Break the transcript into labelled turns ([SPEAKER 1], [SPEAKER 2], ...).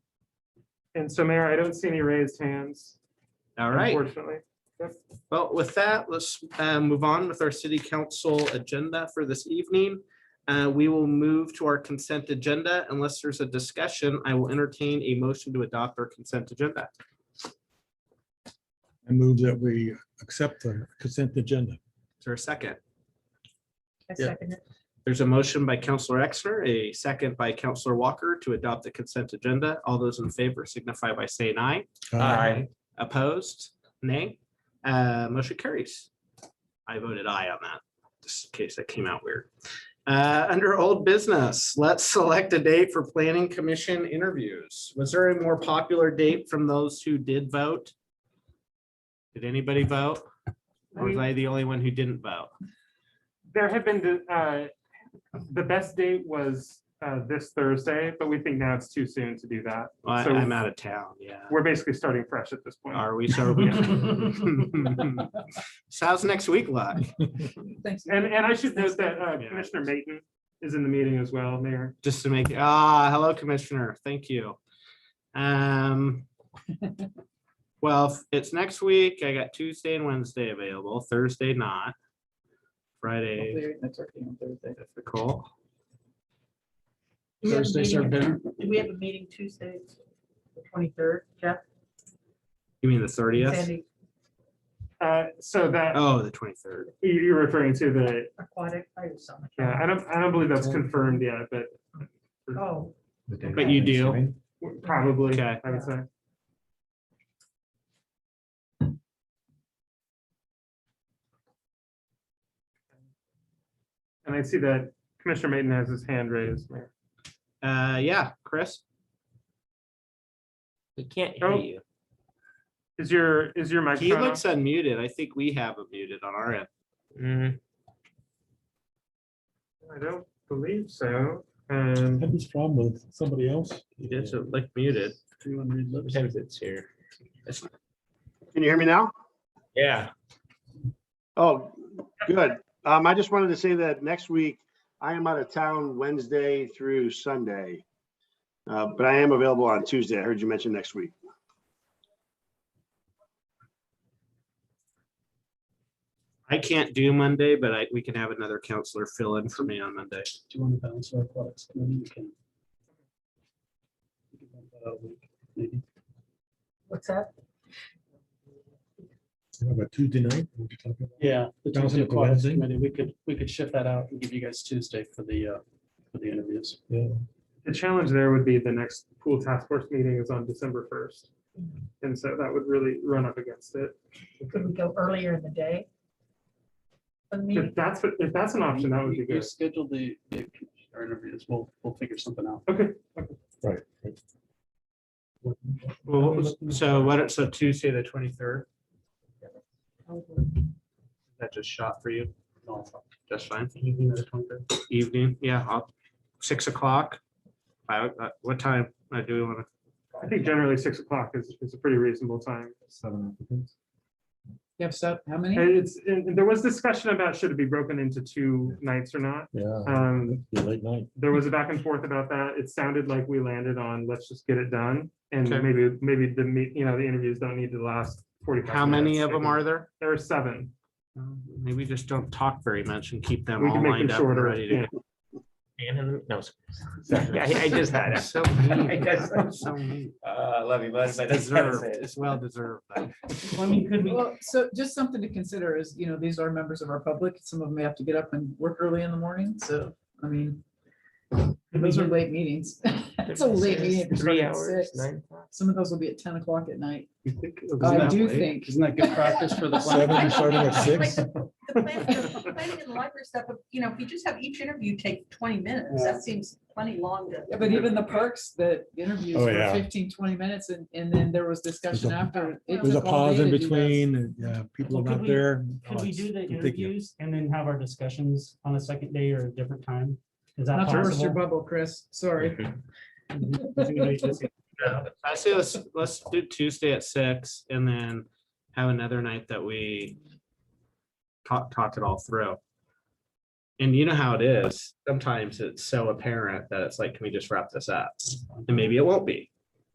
[SPEAKER 1] And so Mayor, I don't see any raised hands,
[SPEAKER 2] All right.
[SPEAKER 1] unfortunately.
[SPEAKER 2] Well, with that, let's uh, move on with our city council agenda for this evening. Uh, We will move to our consent agenda. Unless there's a discussion, I will entertain a motion to adopt our consent agenda.
[SPEAKER 3] I move that we accept the consent agenda.
[SPEAKER 2] Is there a second?
[SPEAKER 4] I
[SPEAKER 3] Yeah.
[SPEAKER 4] second it.
[SPEAKER 2] There's a motion by Counselor Exner, a second by Counselor Walker to adopt the consent agenda. All those in favor signify by saying aye. Opposed? Nay? Uh, Motion carries. I voted aye on that, just in case that came out weird. Uh, Under old business, let's select a date for planning commission interviews. Was there a more popular date from those who did vote? Did anybody vote? Or was I the only one who didn't vote?
[SPEAKER 1] There have been, uh, the best date was uh, this Thursday, but we think now it's too soon to do that.
[SPEAKER 2] Well, I-
[SPEAKER 1] So-
[SPEAKER 2] I'm out of town, yeah.
[SPEAKER 1] We're basically starting fresh at this point.
[SPEAKER 2] Are we? So So how's next week like?
[SPEAKER 4] Thanks.
[SPEAKER 1] And, and I should note that uh,
[SPEAKER 2] Yeah.
[SPEAKER 1] Commissioner Mayton is in the meeting as well, Mayor.
[SPEAKER 2] just to make, ah, hello, Commissioner, thank you. Um. Well, if it's next week. I got Tuesday and Wednesday available, Thursday not. Friday,
[SPEAKER 5] That's okay on Thursday.
[SPEAKER 2] difficult.
[SPEAKER 4] Do we have a
[SPEAKER 5] Thursday's our
[SPEAKER 4] meeting-
[SPEAKER 5] dinner.
[SPEAKER 4] Do we have a meeting Tuesday, the twenty-third, Jeff?
[SPEAKER 2] You mean the thirtieth?
[SPEAKER 4] Sandy
[SPEAKER 1] Uh, So that,
[SPEAKER 2] Oh, the twenty-third.
[SPEAKER 1] you- you're referring to the,
[SPEAKER 4] Aquatic, I was on the.
[SPEAKER 1] yeah, I don't, I don't believe that's confirmed yet, but
[SPEAKER 4] Oh,
[SPEAKER 2] But you do.
[SPEAKER 1] probably,
[SPEAKER 2] Okay.
[SPEAKER 1] I would say. And I see that Commissioner Mayton has his hand raised, Mayor.
[SPEAKER 2] Uh, yeah, Chris?
[SPEAKER 6] He can't
[SPEAKER 1] Oh.
[SPEAKER 6] hear you.
[SPEAKER 1] Is your, is your
[SPEAKER 2] He
[SPEAKER 1] microphone?
[SPEAKER 2] looks unmuted. I think we have him muted on our end.
[SPEAKER 6] Mm-hmm.
[SPEAKER 1] on? I don't believe so. Um,
[SPEAKER 3] Had this problem with somebody else?
[SPEAKER 2] He does look like muted.
[SPEAKER 3] Everyone read lips.
[SPEAKER 6] Sometimes it's here.
[SPEAKER 7] Can you hear me now?
[SPEAKER 6] Yeah.
[SPEAKER 7] Oh, good. Um, I just wanted to say that next week, I am out of town Wednesday through Sunday. Uh, but I am available on Tuesday. I heard you mention next week.
[SPEAKER 2] I can't do Monday, but I, we can have another counselor fill in for me on Monday.
[SPEAKER 5] Do you want to balance our products? Maybe you can. You can bump that out a week, Maybe.
[SPEAKER 4] what's that?
[SPEAKER 3] How About Tuesday night. What you talking about?
[SPEAKER 5] Yeah, the
[SPEAKER 3] Balance
[SPEAKER 5] Tuesday
[SPEAKER 3] it up to
[SPEAKER 5] Aquatics
[SPEAKER 3] Wednesday?
[SPEAKER 5] Committee, we could, we could shift that out and give you guys Tuesday for the, uh, for the interviews.
[SPEAKER 3] Yeah.
[SPEAKER 1] The challenge there would be the next pool task force meeting is on December first. And so that would really run up against it.
[SPEAKER 4] Could we go earlier in the day? For the
[SPEAKER 1] If
[SPEAKER 4] meeting,
[SPEAKER 1] that's, what- if that's an option, that would be
[SPEAKER 5] We- we
[SPEAKER 1] good.
[SPEAKER 5] Schedule the, the- our interviews, we'll, we'll figure something out.
[SPEAKER 1] Okay.
[SPEAKER 2] Well, what was- so what, so Tuesday, the twenty-third, that just shot for you? That's fine. Evening, yeah, I'll- six o'clock. I, uh, what time, I do want to,
[SPEAKER 1] I think generally six o'clock is, is a pretty reasonable time.
[SPEAKER 5] You have set, how many?
[SPEAKER 1] And it's, and and there was discussion about should it be broken into two nights or not.
[SPEAKER 3] Yeah,
[SPEAKER 1] Um,
[SPEAKER 3] it'd be a late night.
[SPEAKER 1] there was a back and forth about that. It sounded like we landed on, let's just get it done. And
[SPEAKER 2] Okay.
[SPEAKER 1] maybe, maybe the meet, you know, the interviews don't need to last forty-five.
[SPEAKER 2] how many of
[SPEAKER 1] minutes.
[SPEAKER 2] them are there?
[SPEAKER 1] There are seven.
[SPEAKER 2] Maybe just don't talk very much and keep them
[SPEAKER 1] We
[SPEAKER 2] all
[SPEAKER 1] can make
[SPEAKER 2] lined
[SPEAKER 1] them
[SPEAKER 2] up and
[SPEAKER 1] shorter.
[SPEAKER 2] ready to
[SPEAKER 1] yeah.
[SPEAKER 2] go.
[SPEAKER 6] And in the, no. sorry. I, I just had it.
[SPEAKER 2] So mean.
[SPEAKER 6] I guess I'm-
[SPEAKER 2] So mean.
[SPEAKER 6] Uh, love you, bud. but that's-
[SPEAKER 2] Deserved, it's well deserved. though.
[SPEAKER 8] Well, I mean, could we,
[SPEAKER 9] Well, so just something to consider is, you know, these are members of our public. Some of them may have to get up and work early in the morning. So, I mean, those are late meetings. It's a late meeting. if you're
[SPEAKER 6] Three
[SPEAKER 9] starting at
[SPEAKER 6] hours,
[SPEAKER 9] six.
[SPEAKER 6] nine o'clock.
[SPEAKER 9] Some of those will be at ten o'clock at night.
[SPEAKER 8] Um,
[SPEAKER 2] Isn't
[SPEAKER 9] I
[SPEAKER 2] that
[SPEAKER 9] do
[SPEAKER 2] late?
[SPEAKER 9] think.
[SPEAKER 5] Isn't that good practice for the?
[SPEAKER 3] Seven,
[SPEAKER 5] planning?
[SPEAKER 3] you're starting at six.
[SPEAKER 4] The planning the planning and library stuff, you know, if you just have each interview take twenty minutes, that seems plenty long to.
[SPEAKER 9] Yeah, But even the perks, the interviews
[SPEAKER 3] Oh,
[SPEAKER 9] were
[SPEAKER 3] yeah.
[SPEAKER 9] 15, 20 minutes and, and then there was discussion
[SPEAKER 3] a-
[SPEAKER 9] after. It
[SPEAKER 3] There's a
[SPEAKER 9] took all
[SPEAKER 3] pause
[SPEAKER 9] day
[SPEAKER 3] in
[SPEAKER 9] to do those.
[SPEAKER 3] between and yeah, people
[SPEAKER 8] Well,
[SPEAKER 3] are
[SPEAKER 8] could
[SPEAKER 3] not
[SPEAKER 8] we-
[SPEAKER 3] there.
[SPEAKER 8] Could
[SPEAKER 3] Oh,
[SPEAKER 8] we
[SPEAKER 3] it's
[SPEAKER 8] do the
[SPEAKER 3] ridiculous.
[SPEAKER 8] interviews and then have our discussions on a second day or a different time? Is that
[SPEAKER 9] Not to burst your
[SPEAKER 8] possible?
[SPEAKER 9] bubble, Chris. Sorry.
[SPEAKER 8] Is anybody just-
[SPEAKER 2] I say let's, let's do Tuesday at six and then have another night that we talk, talk it all through. And you know how it is. Sometimes it's so apparent that it's like, can we just wrap this up? And maybe it won't be.